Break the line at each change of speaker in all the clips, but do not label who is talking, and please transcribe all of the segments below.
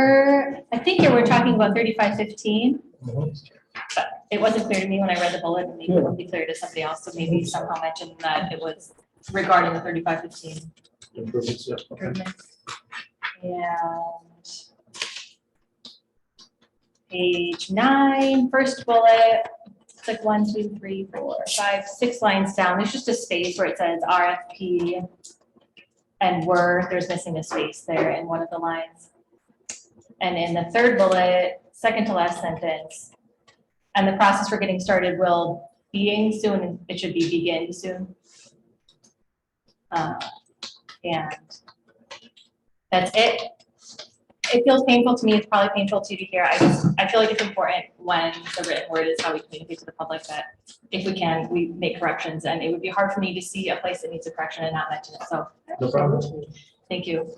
sure, I think you were talking about thirty-five fifteen.
Mhm.
It wasn't clear to me when I read the bullet, and maybe it'll be clear to somebody else, so maybe somehow mention that it was regarding the thirty-five fifteen
Improvements, yeah. Okay.
improvements. And page nine, first bullet, it's like one, two, three, four, five, six lines down, there's just a space where it says RFP and were, there's missing a space there in one of the lines. And in the third bullet, second to last sentence, and the process for getting started will being soon, it should be begin soon. Uh, and that's it. It feels painful to me, it's probably painful to you to hear, I just, I feel like it's important when the written word is how we communicate to the public that if we can, we make corrections, and it would be hard for me to see a place that needs a correction and not mention it, so
No problem.
thank you.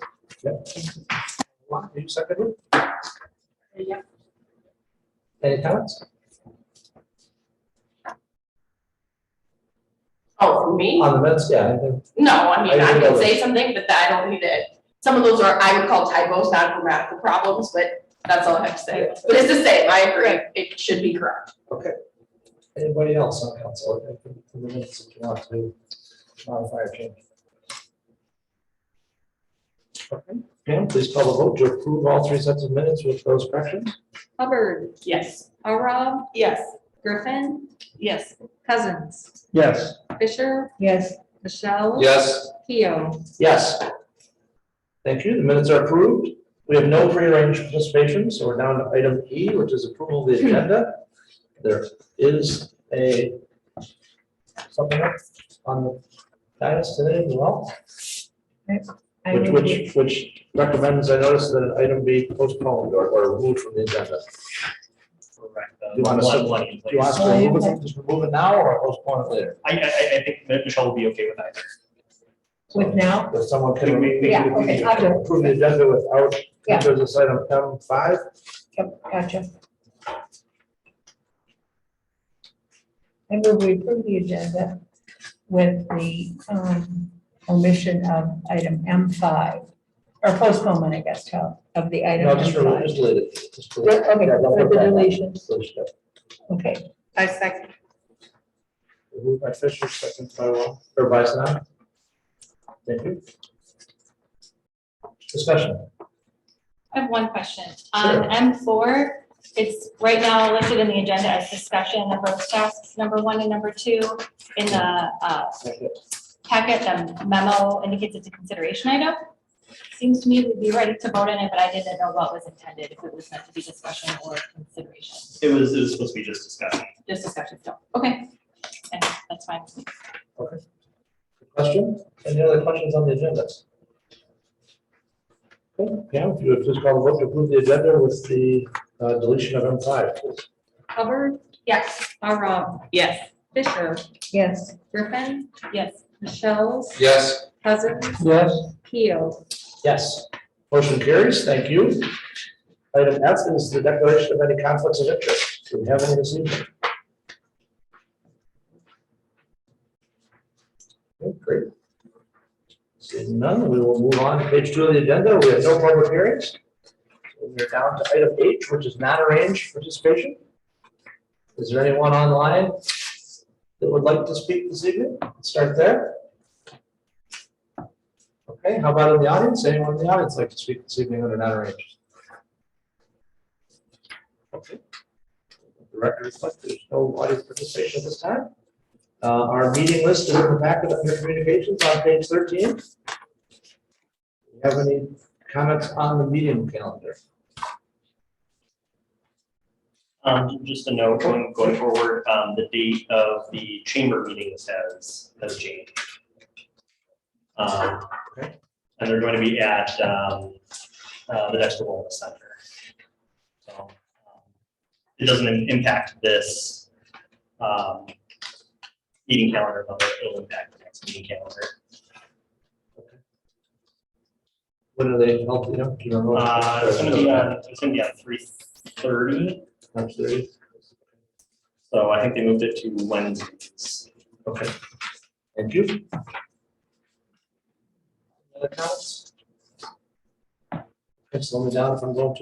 Mark, you second it?
Yeah.
Any comments?
Oh, for me?
On the minutes, yeah, I think-
No, I mean,
Uh, I
I
didn't
can
know
say something, but I don't need it. Some of those are, I would call typos, not grammatical problems, but that's all I have to say. But it's the same, I agree, it should be correct.
anybody else on council, I think, for the minutes, if you want to modify or change. Okay, Pam, please call the vote to approve all three sets of minutes with those corrections.
Hubbard,
Yes.
Arab,
Yes.
Griffin,
Yes.
Cousins,
Yes.
Fisher. Yes. Michelle.
Yes.
Keo.
Yes. Thank you, the minutes are approved. We have no prearranged participation, so we're down to item E, which is approval of the agenda. There is a something up on the dais today as well, which, which, which recommends, I noticed that an item be postponed or, or removed from the agenda.
Correct.
You want us to-
One- one in
Do you want us
place.
to remove it, just remove it now or postpone it later?
I, I, I- I think that Michelle will be okay with either.
With now? If someone can.
We- we-
Yeah, okay, I'll do it.
Approve the agenda without,
Yeah.
there's this item M five.
Yep, gotcha. And move we approve the agenda with the um, omission of item M5, or postponement, I guess, of of the item
No, just remove,
M5.
just delete it. Just delete it.
Yeah, Okay,
Yeah, don't
with
put that
the
back.
deletion,
Delete it.
okay.
I second.
Moved by Fisher, second by Wall, or by Snow. Thank you. Discussion.
I have one question. On M four, it's right now listed in the agenda as discussion of those tasks, number one and number two. In the uh, packet, the memo indicates it's a consideration item. Seems to me we'd be ready to vote on it, but I didn't know what was intended, if it was meant to be discussion or consideration.
It was, it was supposed to be just discussion.
Just discussion, so, okay. And that's fine.
Question? Any other questions on the agenda? Okay, Pam, if you would please call the vote to approve the agenda with the uh, deletion of M five, please.
Hubbard,
Yes,
Arab,
Yes.
Fisher,
Yes,
Griffin,
yes.
Michelle,
Yes.
Cousins,
Yes.
Keo.
Yes. Motion carries. Thank you. Item F is the declaration of any conflicts of interest. Do we have any this evening? Okay, Great. Seeing none, we will move on to page two of the agenda. We have no public hearings. We're down to item H, which is non-arranged participation. Is there anyone online that would like to speak this evening? Let's Start there. Okay, how about in the audience? Anyone in the audience like to speak this evening under not arranged? Okay. The record reflects there's no audience participation at this time. Uh, Our meeting list is in the packet under communications on page 13. Do you Have any comments on the meeting calendar?
Um, just a note, going, going forward, um, the date of the chamber meetings has, has changed. Um,
Okay.
and they're going to be at, um, uh, the Dexter Wellness Center. So, um, it doesn't im- impact this, um, meeting calendar, but it'll impact the next meeting calendar.
When are they held, you know? do you remember?
Uh, it's gonna be on, it's gonna be on three thirty,
March 30th?
so I think they moved it to Wednesdays.
Okay. Thank you. Other comments? Slow me down if I'm going too